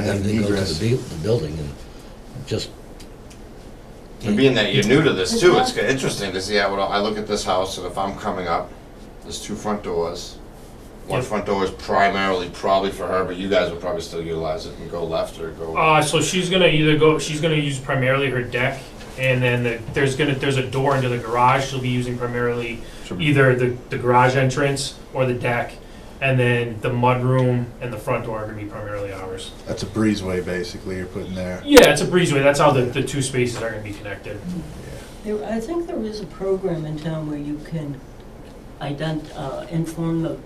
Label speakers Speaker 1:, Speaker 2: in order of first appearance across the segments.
Speaker 1: them to
Speaker 2: an
Speaker 1: go to
Speaker 2: egress.
Speaker 1: the bu- the building and just.
Speaker 3: And being that you're new to this too, it's interesting to see how, it all- I look at this house and if I'm coming up, there's two front doors. One
Speaker 4: Yeah.
Speaker 3: front door is primarily probably for her, but you guys would probably still utilize it and go left or go.
Speaker 4: Uh, so she's gonna either go, she's gonna use primarily her deck, and then the, there's gonna, there's a door into the garage, she'll be using primarily either the, the garage entrance or the deck, and then the mudroom and the front door are gonna be primarily ours.
Speaker 2: That's a breezeway, basically, you're putting there.
Speaker 4: Yeah, it's a breezeway, that's how the, the two spaces are gonna be connected.
Speaker 5: There, I think there is a program in town where you can ident, uh, inform the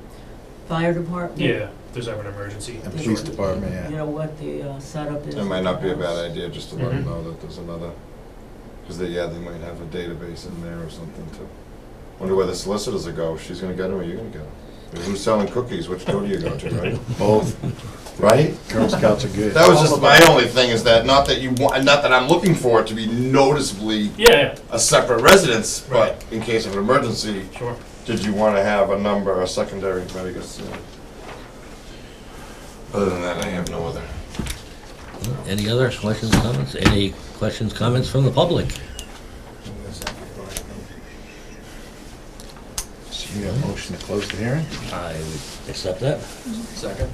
Speaker 5: fire department.
Speaker 4: Yeah, if there's ever an emergency.
Speaker 2: And police department, yeah.
Speaker 5: You know, what the uh, setup is.
Speaker 3: It might not be a bad idea just to let them
Speaker 4: Mhm.
Speaker 3: know that there's another, because they, yeah, they might have a database in there or something too. Wonder where the solicitors will go, she's gonna get them or you're gonna get them? Who's selling cookies, which door do you go to, right?
Speaker 2: Both
Speaker 3: Right?
Speaker 2: Girl Scouts are good.
Speaker 3: That was just my only thing is that, not that you want, not that I'm looking for it to be noticeably
Speaker 4: Yeah,
Speaker 3: a separate residence, but
Speaker 4: Right.
Speaker 3: in case of an emergency,
Speaker 4: yeah, sure.
Speaker 3: did you want to have a number, a secondary, I guess? uh, Other than that, I have no other.
Speaker 1: Any other questions, comments? Any questions, comments from the public?
Speaker 2: So you got a motion to close the hearing?
Speaker 1: I would accept that.
Speaker 6: Second.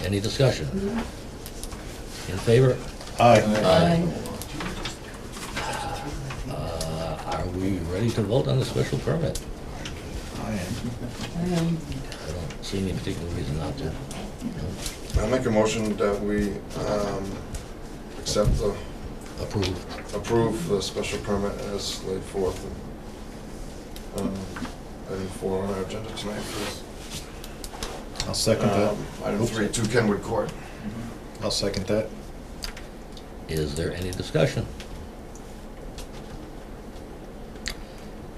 Speaker 1: Any discussion? In favor?
Speaker 2: Aye.
Speaker 3: Aye.
Speaker 1: Uh, Are we ready to vote on the special permit?
Speaker 2: I am.
Speaker 5: Um,
Speaker 1: I don't see any particular reason not to.
Speaker 3: I'll make a motion that we um, accept the,
Speaker 1: Approve.
Speaker 3: approve the special permit as laid forth. um, Item four on our agenda tonight, please.
Speaker 2: I'll second that.
Speaker 3: Um, Item three, two Kenwood Court.
Speaker 2: I'll second that.
Speaker 1: Is there any discussion?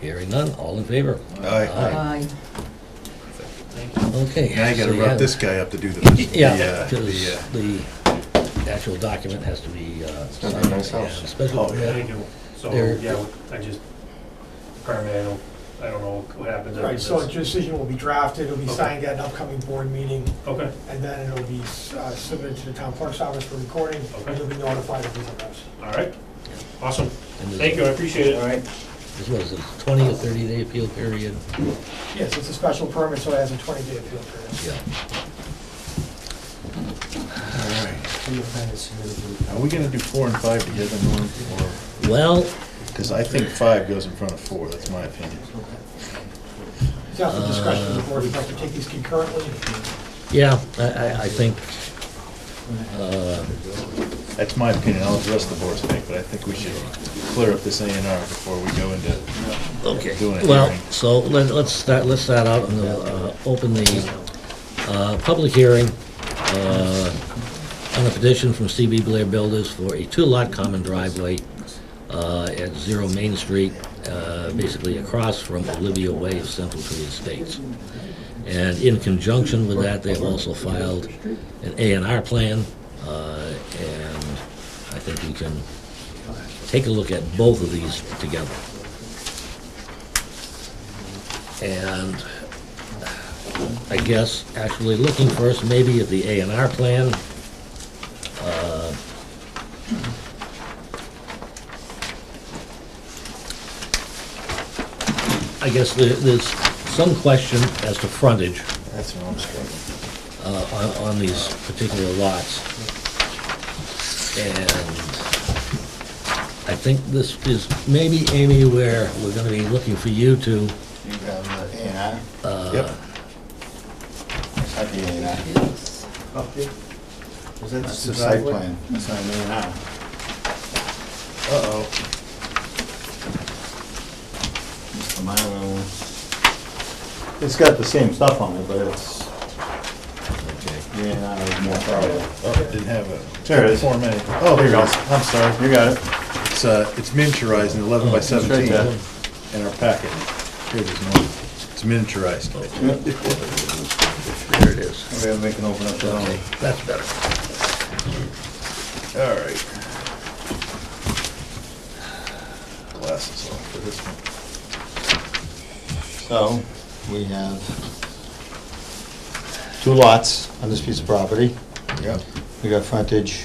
Speaker 1: Hearing none, all in favor?
Speaker 2: Aye.
Speaker 5: Aye.
Speaker 1: Okay.
Speaker 2: Now you gotta
Speaker 1: so
Speaker 2: rub
Speaker 1: have-
Speaker 2: this guy up to do the, the,
Speaker 1: Yeah,
Speaker 2: uh,
Speaker 1: because
Speaker 2: the, uh,
Speaker 1: the actual document has to be uh,
Speaker 3: gonna
Speaker 1: signed.
Speaker 3: be a nice house.
Speaker 1: and Special
Speaker 2: Oh, yeah.
Speaker 1: permit
Speaker 4: Thank you. So,
Speaker 1: There-
Speaker 4: yeah, I just, permit, I don't, I don't know what happens after
Speaker 6: Right, so a
Speaker 4: this.
Speaker 6: decision will be drafted, it'll be
Speaker 4: Okay.
Speaker 6: signed at an upcoming board meeting,
Speaker 4: Okay,
Speaker 6: and then it'll be uh, submitted to the town clerk's office for recording,
Speaker 4: Okay.
Speaker 6: and you'll be notified of these events.
Speaker 4: all right. Awesome.
Speaker 1: and there's-
Speaker 4: Thank you, I appreciate it.
Speaker 6: right.
Speaker 1: This was a 20 or 30 day appeal period.
Speaker 6: Yes, it's a special permit, so it has a 20-day appeal period.
Speaker 1: Yeah.
Speaker 2: all right. Are we gonna do four and five together, Norm, or,
Speaker 1: Well,
Speaker 2: because I think five goes in front of four, that's my opinion.
Speaker 6: It's out for discussion of the board, if I could take these concurrently.
Speaker 1: yeah, I, I, I think, uh,
Speaker 2: That's my opinion, I'll address the board's thing, but I think we should clear up this A and R before we go into
Speaker 1: okay.
Speaker 2: doing it.
Speaker 1: Well, so let, let's start, let's start out and, uh, open the, uh, public hearing, uh, on a petition from CB Blair Builders for a two-lot common driveway, uh, at Zero Main Street, uh, basically across from Olivia Way of Central Tree Estates. And in conjunction with that, they've also filed an A and R plan, uh, and I think we can take a look at both of these together. And I guess actually looking first maybe at the A and R plan. uh, I guess there- there's some question as to frontage
Speaker 2: That's what I'm struggling.
Speaker 1: uh, on, on these particular lots. And I think this is maybe, Amy, where we're gonna be looking for you to,
Speaker 7: You have the A and R,
Speaker 2: Yep.
Speaker 1: uh,
Speaker 7: not the A and R.
Speaker 5: Yes.
Speaker 7: That's the site plan, that's not an A and R.
Speaker 2: Uh-oh,
Speaker 7: It's the Mylar one. It's got the same stuff on it, but it's,
Speaker 1: okay.
Speaker 7: the A and R is more thorough.
Speaker 2: oh, it didn't have a.
Speaker 7: There it is.
Speaker 2: Form A. Oh, there you go. I'm sorry.
Speaker 7: You got it.
Speaker 2: It's, uh, it's miniaturized in eleven by
Speaker 7: right
Speaker 2: seventeen
Speaker 7: there.
Speaker 2: in our packet. Here it is, Norm. It's miniaturized.
Speaker 1: There it is.
Speaker 7: Maybe we can open up the
Speaker 1: Okay,
Speaker 7: own.
Speaker 1: that's better.
Speaker 2: All right. Glasses off for this one.
Speaker 7: So, we have two lots on this piece of property.
Speaker 2: Yeah.
Speaker 7: We got frontage.